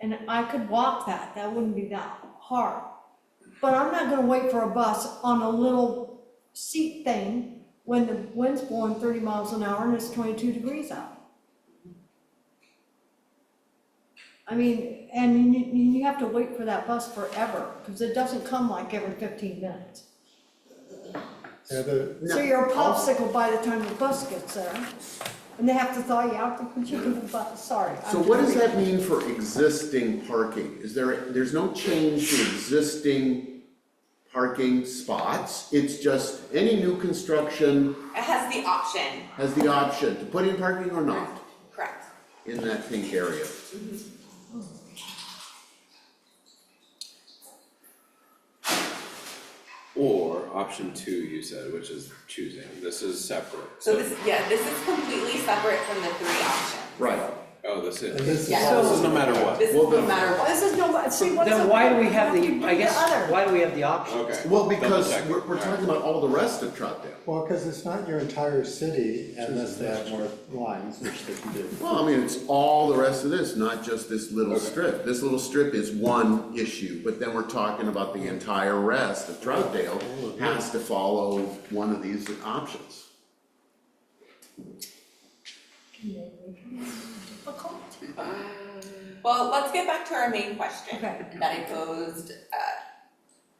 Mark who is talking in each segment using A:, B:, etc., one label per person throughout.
A: and I could walk that, that wouldn't be that hard. But I'm not gonna wait for a bus on a little seat thing when the wind's blowing thirty miles an hour and it's twenty-two degrees out. I mean, and you, you you have to wait for that bus forever, because it doesn't come like every fifteen minutes.
B: Yeah, the,
A: So you're a popsicle by the time the bus gets there, and they have to thaw you out to put you in the bus, sorry.
C: So
A: I'm
C: what does
A: joking.
C: that mean for existing parking? Is there, there's no change to existing parking spots? It's just any new construction
D: It has the option,
C: has the option to put in parking or not
D: correct?
C: in that pink area.
E: Or option two, you said, which is choosing, this is separate,
D: So
E: so,
D: this, yeah, this is completely separate from the three options.
C: Right.
E: oh, this
B: and this
E: is,
B: is.
D: Yeah.
E: this is no matter what,
D: This is
C: Well,
D: no
C: then-
D: matter what.
A: This is no, see, what's.
F: Then
A: up-
F: why do we have
A: you
F: the, I
A: do
F: guess,
A: other.
F: why do we have the option?
E: okay.
C: Well, because
E: Double
C: we're,
E: check.
C: we're talking about all the rest of Troutdale.
B: Well, because it's not your entire city unless they have more lines, which they can do.
C: Well, I mean, it's all the rest of this, not just this little
E: Okay.
C: strip. This little strip is one issue, but then we're talking about the entire rest of
E: Oh,
C: Troutdale has to follow one of these options.
D: Well, let's get back to our main question
A: Okay.
D: that I posed uh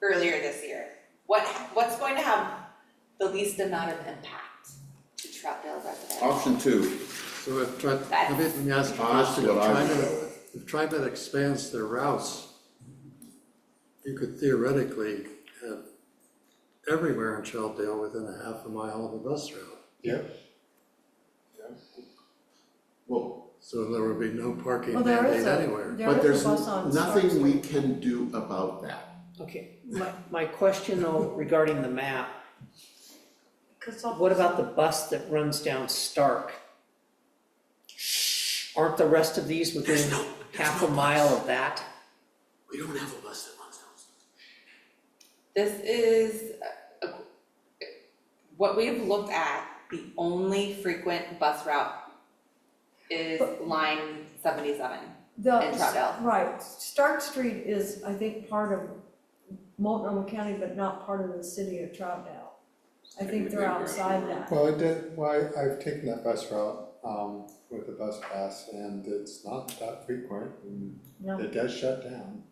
D: earlier this year. What what's going to have the least amount of impact to Troutdale residents?
C: Option two,
G: So if tri,
D: That's-
G: let me, let me ask you a
C: That's
G: question, if
C: what I would go
G: TriMet, if TriMet expands their routes, you could theoretically have uh, everywhere in Troutdale within a half a mile of a bus route.
B: Yep.
C: well,
G: So there would be no parking
A: Well, there
G: mandate
A: is
G: anywhere.
A: a,
C: but
A: there
C: there's
A: is a bus on Stark
C: nothing we
A: Street.
C: can do about that.
F: Okay, my, my question though regarding the map,
A: 'Cause all-
F: what about the bus that runs down Stark? Aren't the rest of these within half a mile of that?
C: We don't have a bus that runs down.
D: This is uh, uh, what we've looked at, the only frequent bus route is line seventy-seven.
A: The-
D: in Troutdale.
A: Right, Stark Street is, I think, part of Multnomah County, but not part of the city of Troutdale. I think they're outside that.
B: Well, it did, why, I've taken that bus route, um, with the bus pass and it's not that frequent and
A: No.
B: it does shut down.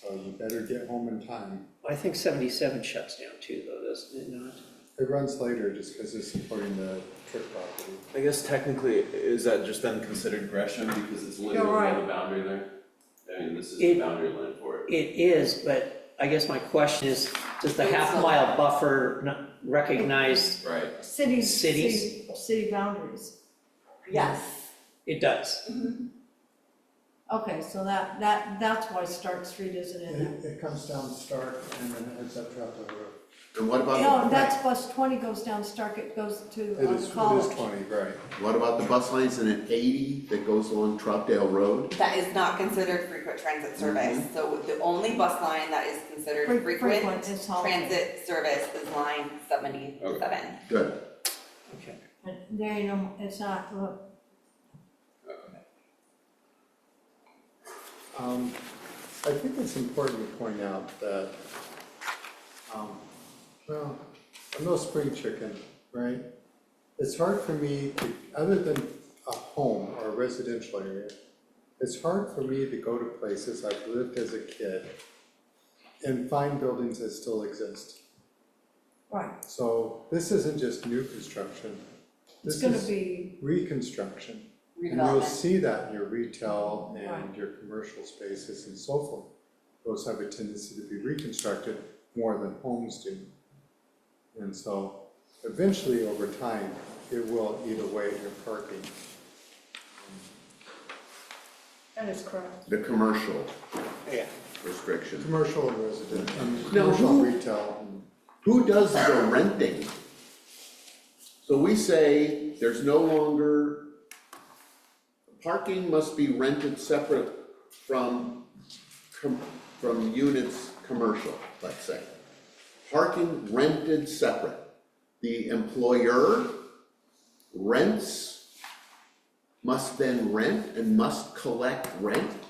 B: So you better get home in time.
F: I think seventy-seven shuts down too though, doesn't it not?
B: It runs later just because it's supporting the trip property.
H: I guess technically, is that just then considered Gresham because it's literally
A: You're right.
H: on the boundary there? I mean, this is
F: It-
H: the boundary line for it.
F: It is, but I guess my question is, does the half mile buffer n- recognize,
H: Right.
A: Cities,
F: Cities?
A: city, city boundaries.
D: Yes.
F: it does?
A: Okay, so that, that, that's why Stark Street isn't in there.
B: It, it comes down Stark and then it ends up Troutdale Road.
C: And what
A: No,
C: about,
A: that's bus twenty goes down Stark, it goes to
B: It
A: um,
B: is, it
A: college.
B: is twenty, right.
C: what about the bus lines in an eighty that goes along Troutdale Road?
D: That is not considered frequent transit service, so the only bus line that is
A: Fre-
D: considered frequent
A: frequent is Holiday.
D: transit service is line seventy-seven.
C: Good,
F: Okay.
A: And There you know, it's not, uh, look,
B: Um, I think it's important to point out that, um, well, I'm no spring chicken, right? It's hard for me to, other than a home or a residential area, it's hard for me to go to places I've lived as a kid and find buildings that still exist.
A: right,
B: So this isn't just new construction.
A: it's
B: This
A: gonna
B: is
A: be,
B: reconstruction. And you'll
D: Redevelopment.
B: see that in your retail and
A: Right.
B: your commercial spaces and so forth. Those have a tendency to be reconstructed more than homes do. And so eventually, over time, it will eat away at your parking.
A: that is correct.
C: the commercial
F: Yeah.
C: restriction.
B: Commercial and residential, and
C: Now,
B: commercial
C: who-
B: retail and
C: Who does the renting? So we say there's no longer, parking must be rented separate from, com- from units commercial, let's say. Parking rented separate. The employer rents, must then rent and must collect rent